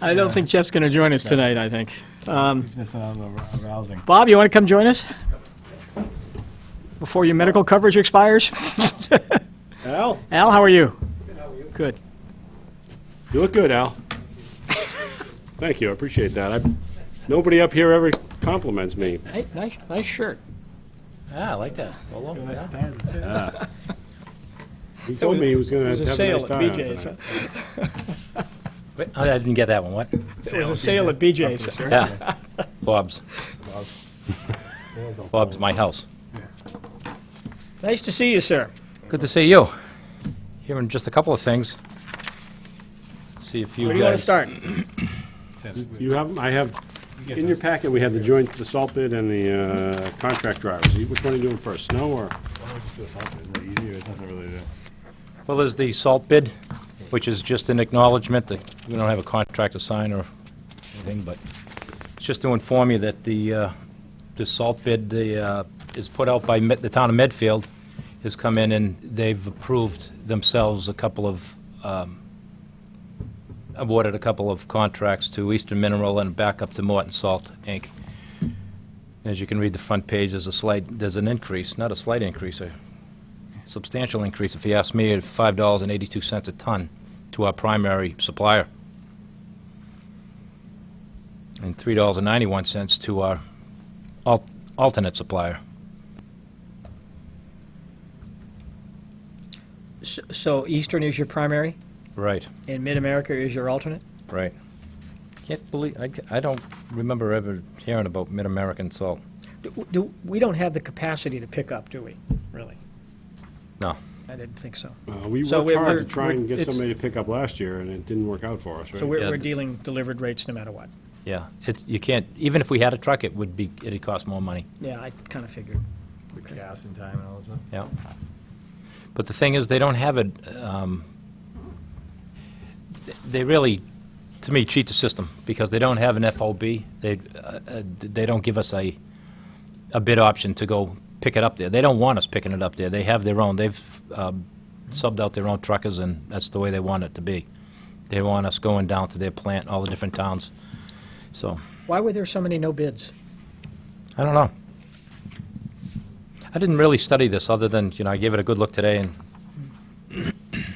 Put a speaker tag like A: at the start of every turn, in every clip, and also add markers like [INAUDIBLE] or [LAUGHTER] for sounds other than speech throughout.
A: I don't think Jeff's going to join us tonight, I think. Um,
B: He's missing out on the rousing.
A: Bob, you want to come join us? Before your medical coverage expires?
C: Al,
A: Al, how are you? Good.
C: you look good, Al. Thank you, I appreciate that. I- Nobody up here ever compliments me.
D: Hey, nice, nice shirt. Ah, I like that. Polo, yeah.
C: He told me he was gonna have
A: It was
C: a
A: a
C: nice
A: sale at
C: time.
A: BJ's. huh?
D: Wait, I didn't get that one, what?
A: It was a sale at BJ's.
B: [LAUGHS]
D: Yeah. Bob's, Bob's my house.
A: Nice to see you, sir.
D: Good to see you. Hearing just a couple of things. See if you
A: Where do you want to
D: guys.
A: start?
C: You have, I have, in your packet, we have the joint, the salt bid and the uh, contract drivers. You- Which one are you doing first, snow or?
D: Well, there's the salt bid, which is just an acknowledgement that we don't have a contract to sign or anything, but it's just to inform you that the, uh, the salt bid, the, uh, is put out by Med- the town of Medfield, has come in and they've approved themselves a couple of, um, awarded a couple of contracts to Eastern Mineral and back up to Morton Salt, Inc. As you can read the front page, there's a slight, there's an increase, not a slight increase, a substantial increase, if you ask me, at $5.82 a ton to our primary supplier, and $3.91 to our al- alternate supplier.
A: S- So Eastern is your primary,
D: Right,
A: and Mid-America is your alternate?
D: right. Can't believe, I c- I don't remember ever hearing about Mid-American salt.
A: Do- Do, we don't have the capacity to pick up, do we, really?
D: No.
A: I didn't think so.
C: Uh, We
A: So
C: worked
A: we're-
C: hard
A: we're-
C: to try and
A: we're-
C: get
A: it's-
C: somebody to pick up last year, and it didn't work out for us,
A: So
C: right?
A: we're,
D: Yeah.
A: we're dealing delivered rates no matter what.
D: Yeah, it's, you can't, even if we had a truck, it would be, it'd cost more money.
A: Yeah, I kind of figured.
B: Gas and time and all that stuff.
D: Yeah. But the thing is, they don't have it, um, they really, to me, cheat the system, because they don't have an FOB. They, uh, uh, they don't give us a, a bid option to go pick it up there. They don't want us picking it up there. They have their own, they've um, subbed out their own truckers, and that's the way they want it to be. They want us going down to their plant, all the different towns. So,
A: Why were there so many no bids?
D: I don't know. I didn't really study this, other than, you know, I gave it a good look today, and [COUGHS]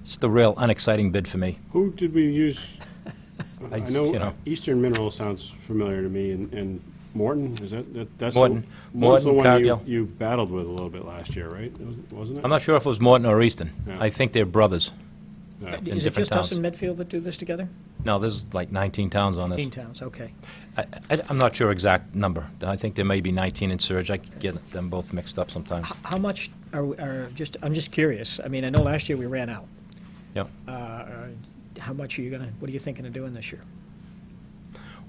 D: it's the real unexciting bid for me.
C: Who did we
D: [LAUGHS]
C: use? I
D: you
C: know uh,
D: know.
C: Eastern Mineral sounds familiar to me, and- and Morton, is that, that- that's? the-
D: Morton.
C: Morton's the
D: Morton,
C: one you-
D: Cargill.
C: you battled with a little bit last year, right? Wasn't it?
D: I'm not sure if it was Morton or Easton.
C: Yeah.
D: I think they're brothers.
C: No.
D: In
A: Is it
D: different
A: just us
D: towns.
A: in Medfield that do this together?
D: No, there's like 19 towns on this.
A: Teen towns, okay.
D: I, I- I'm not sure exact number. I think there may be 19 in Surge. I get them both mixed up sometimes.
A: How much are, we- are, just, I'm just curious. I mean, I know last year we ran out.
D: Yeah.
A: Uh, uh, How much are you gonna, what are you thinking of doing this year?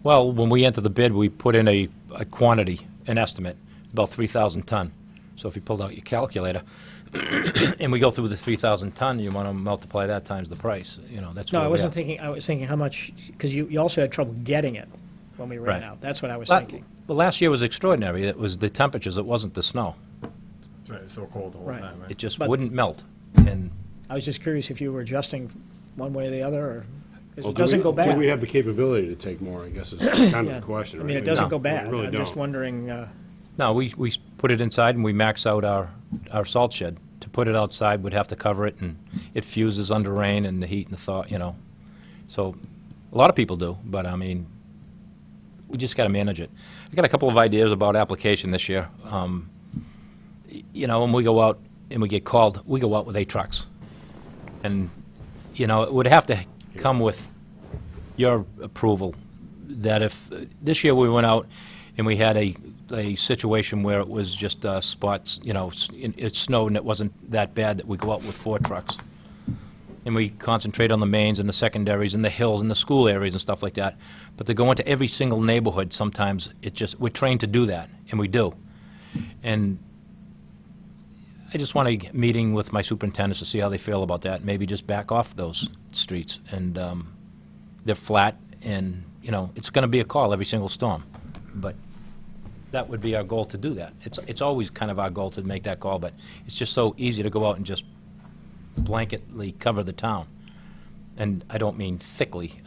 D: Well, when we enter the bid, we put in a, a quantity, an estimate, about 3,000 ton. So if you pulled out your calculator, [COUGHS] and we go through the 3,000 ton, you want to multiply that times the price, you know, that's
A: No,
D: where
A: I
D: we
A: wasn't
D: are.
A: thinking, I was thinking how much, because you, you also had trouble getting it when we ran
D: Right.
A: out. That's what I was
D: La-
A: thinking.
D: Well, last year was extraordinary. It was the temperatures, it wasn't the snow.
B: That's right, it's so cold the whole
A: Right.
B: time,
D: It
B: right?
D: just
A: But-
D: wouldn't melt. And
A: I was just curious if you were adjusting one way or the other, or, because
C: Well,
A: it
C: do we-
A: doesn't go
C: Do we
A: bad.
C: have the capability to take more, I
A: [COUGHS]
C: guess is kind of
A: Yeah.
C: the question,
A: I
C: right?
A: mean, it
C: No,
A: doesn't go
C: we
A: bad.
C: really
A: I'm just
C: don't.
A: wondering, uh,
D: No, we, we put it inside and we max out our, our salt shed. To put it outside, we'd have to cover it, and it fuses under rain and the heat and the thaw, you know. So, a lot of people do, but I mean, we just gotta manage it. I got a couple of ideas about application this year. Um, y- You know, when we go out and we get called, we go out with eight trucks. And, you know, it would have to come with your approval that if, this year we went out and we had a, a situation where it was just uh, spots, you know, s- it it snowed and it wasn't that bad, that we go out with four trucks. And we concentrate on the mains and the secondaries and the hills and the school areas and stuff like that. But to go into every single neighborhood, sometimes it just, we're trained to do that, and we do. And I just want a meeting with my superintendents to see how they feel about that, maybe just back off those streets and, um, they're flat, and, you know, it's going to be a call every single storm. But that would be our goal to do that. It's, it's always kind of our goal to make that call, but it's just so easy to go out and just blanketly cover the town. And I don't mean thickly,